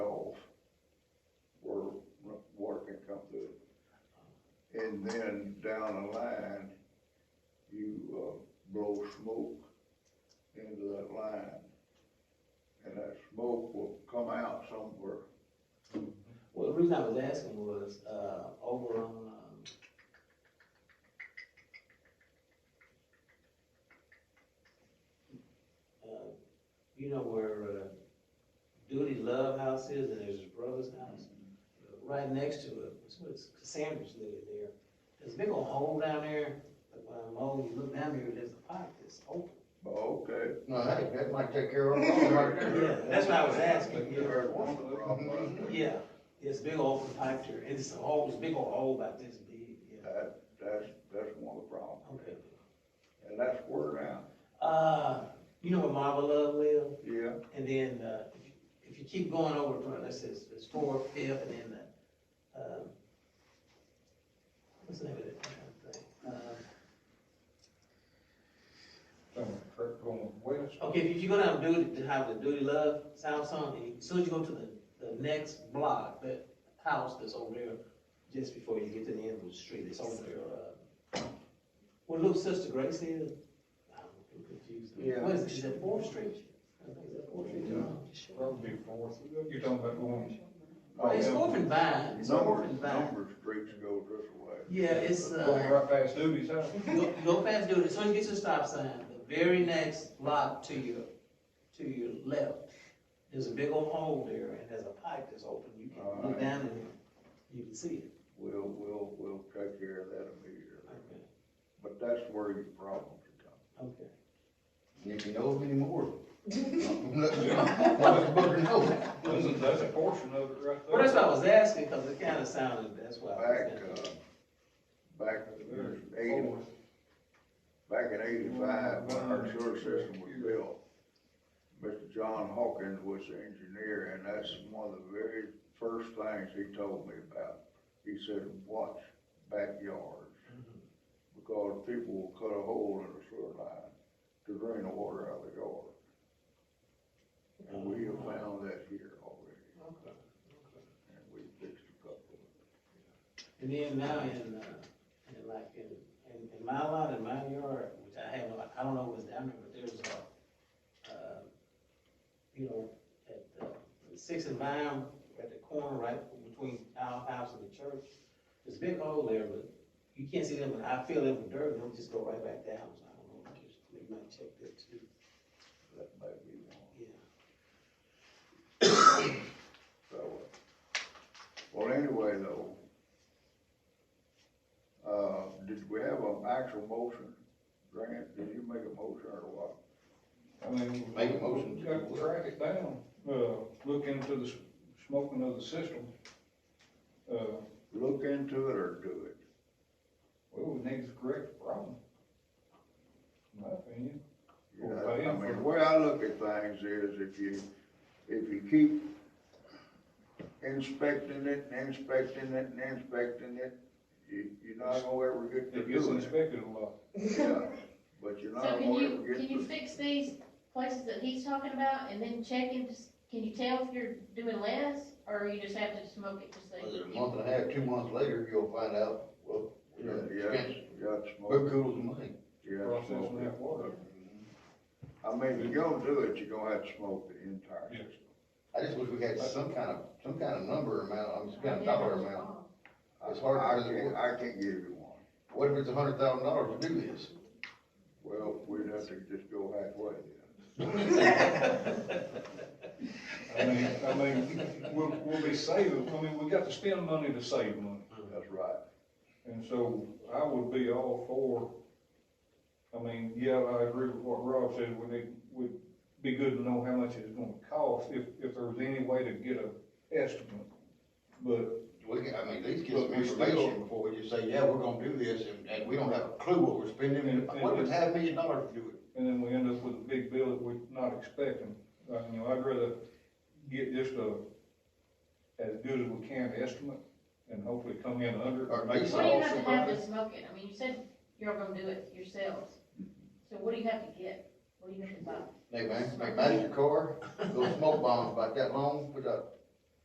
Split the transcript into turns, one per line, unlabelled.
and then down the line, you, uh, blow smoke into that line. And that smoke will come out somewhere.
Well, the reason I was asking was, uh, over on, um, uh, you know where, uh, Duty Love House is, and there's his brother's house, right next to it, it's where Cassandra's living there. There's a big old hole down there, that when I'm old, you look down there, there's a pipe that's open.
But okay.
No, that, that might take care of it right
Yeah,
there.
that's what I was asking,
You
yeah.
heard one of the problems.
Yeah, it's a big old pipe there, it's a hole, it's a big old hole about this big, yeah,
That, that's, that's one of the problems.
okay.
And that's where now,
Uh, you know where Marble Love live,
yeah,
and then, uh, if you- if you keep going over from, let's say it's, it's fourth, fifth, and then the, um, what's the name of that damn thing? Uh,
Going west.
Uh, okay, if you go down Duty, to have the Duty Love, South Sun, and as soon as you go to the, the next block, that house that's over there, just before you get to the end of the street, it's over there, uh, where little sister Grace is, I'm confused.
Yeah.
What is it, is that Fourth Street? I think it's Fourth Street,
Yeah.
Well,
Before, you're talking about going.
Well, Oh, it's
Yeah.
over in Vine, it's over
number,
in Vine.
number streets go this way.
Yeah, it's,
Going
uh,
right past Doobie's house.
go, go past Duty, so you get to the stop sign, the very next block to your, to your left, there's a big old hole there, and there's a pipe that's open, you can look
Alright.
down in there, you can see it.
We'll, we'll, we'll take care of that immediately. But that's where your problems come.
Okay.
If you know of any more. Let Booker know.
That's a, that's a portion of it right there.
Well, that's what I was asking, cause it kinda sounded, that's why I was
Back, uh,
asking.
back in eighty,
Forward.
back in eighty-five, when our sewer system was built, Mr. John Hawkins was the engineer, and that's one of the very first things he told me about. He said, watch backyards, because people will cut a hole in the sewer line to drain the water out of the yard. And we have found that here already,
Okay.
and we fixed a couple of them.
And then now in, uh, in like, in, in, in my lot, in my yard, which I have, like, I don't know what's down there, but there's a, uh, you know, at, uh, Six and Vine, at the corner, right between our house and the church, there's a big hole there, but you can't see them, and I fill in with dirt, and they'll just go right back down, so I don't know, just, they might check that too,
that may be one.
yeah.
So, uh, well, anyway, though, uh, did we have an actual motion? Grant, did you make a motion or what?
I mean.
Make a motion to-
Got to track it down, uh, look into the s- smoking of the system. Uh,
Look into it or do it?
well, we need to correct the problem. In my opinion.
You
Well,
know,
I
I
am
mean,
for-
the way I look at things is if you, if you keep inspecting it and inspecting it and inspecting it, you, you're not gonna ever get to
It gets
doing it.
inspected a lot.
Yeah, But you're not
So can
gonna
you,
ever
can
get
you
to.
fix these places that he's talking about and then check and just, can you tell if you're doing less? Or you just have to smoke it to
Whether a
see?
month and a half, two months later, you'll find out, well,
Yeah, yeah,
expense,
yeah, it's
who
more,
cools the money?
yeah, it's
Processing
more.
that water.
I mean, if you're gonna do it, you're gonna have to smoke the entire
Yeah.
system.
I just wish we had some kind of, some kind of number amount, I'm just kind of dollar amount. It's hard
I
to-
can't, I can't give you one.
What if it's a hundred thousand dollars to do this?
Well, we'd have to just go halfway then.
I mean, I mean, we'll, we'll be saving, I mean, we got to spend money to save money.
That's right.
And so I would be all for, I mean, yeah, I agree with what Rob said, we need, would be good to know how much it's gonna cost, if, if there was any way to get a estimate. But,
We, can- I mean, at least get
But
some
we still-
information before we just say, yeah, we're gonna do this, and, and we don't have a clue what we're spending,
And-
what if
and-
it's half a million dollars to do it?
and then we end up with a big bill that we're not expecting, Uh, you know, I'd rather get just a, as good as we can estimate, and hopefully come in under.
Or
make
base
What do you
all
have to have
surprised.
to smoke it? I mean, you said you're gonna do it yourselves. So what do you have to get? What do you have to buy?
They ma- they master car, little smoke bombs about that long, put up